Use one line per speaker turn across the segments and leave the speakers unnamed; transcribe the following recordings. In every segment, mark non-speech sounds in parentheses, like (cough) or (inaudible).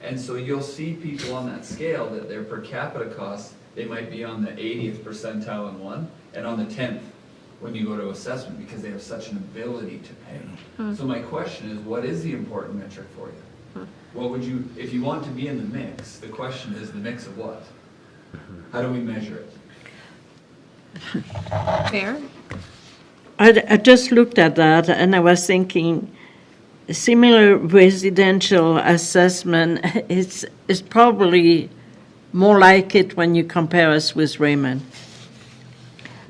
And so you'll see people on that scale that their per capita costs, they might be on the 80th percentile in one and on the 10th when you go to assessment because they have such an ability to pay. So my question is, what is the important metric for you? What would you, if you want to be in the mix, the question is the mix of what? How do we measure it?
Fair?
I, I just looked at that and I was thinking similar residential assessment (laughs) it's is probably more like it when you compare us with Raymond.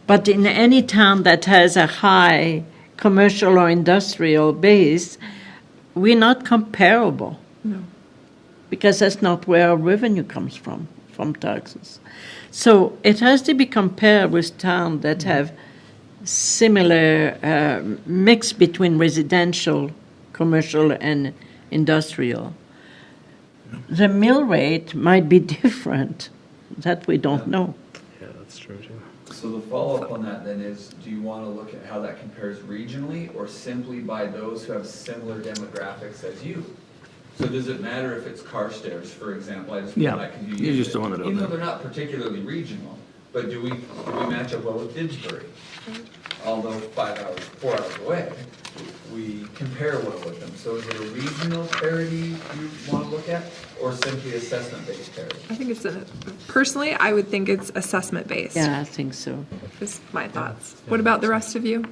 But in any town that has a high commercial or industrial base, we're not comparable. Because that's not where our revenue comes from, from taxes. So it has to be compared with towns that have similar uh, mix between residential, commercial, and industrial. The mill rate might be (laughs) different. That we don't know.
Yeah, that's true too.
So the follow-up on that then is, do you want to look at how that compares regionally or simply by those who have similar demographics as you? So does it matter if it's Carstairs, for example, I just
Yeah,
put that because you
you
used
just don't
it.
want it out
Even though
there.
they're not particularly regional, but do we, do we match up well with Didsbury? Although five hours, four hours away, we compare well with them. So is it a regional parity you want to look at or simply assessment-based parity?
I think it's a, personally, I would think it's assessment based.
Yeah, I think so.
Is my thoughts. What about the rest of you?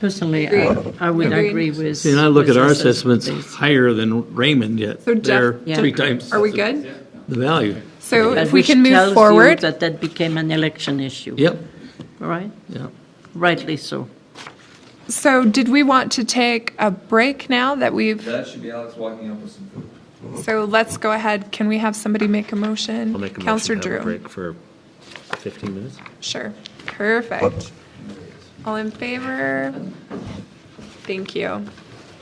Personally, I,
Agreed.
I would
Agreed.
agree with.
See, and I look at our
with
assessments
assessment-based.
higher than Raymond yet.
So
They're
Jeff,
Yeah.
three times.
Are we
the-
good?
The value.
So
But
if we
which
can move
tells you
forward,
That that became an election issue.
Yep,
All right?
yep.
Rightly so.
so did we want to take a break now that we've,
That should be Alex walking up with some food.
so let's go ahead. Can we have somebody make a motion?
I'll make a
Counselor
motion to have a
Drew.
break for 15 minutes.
Sure. Perfect. All in favor? Thank you.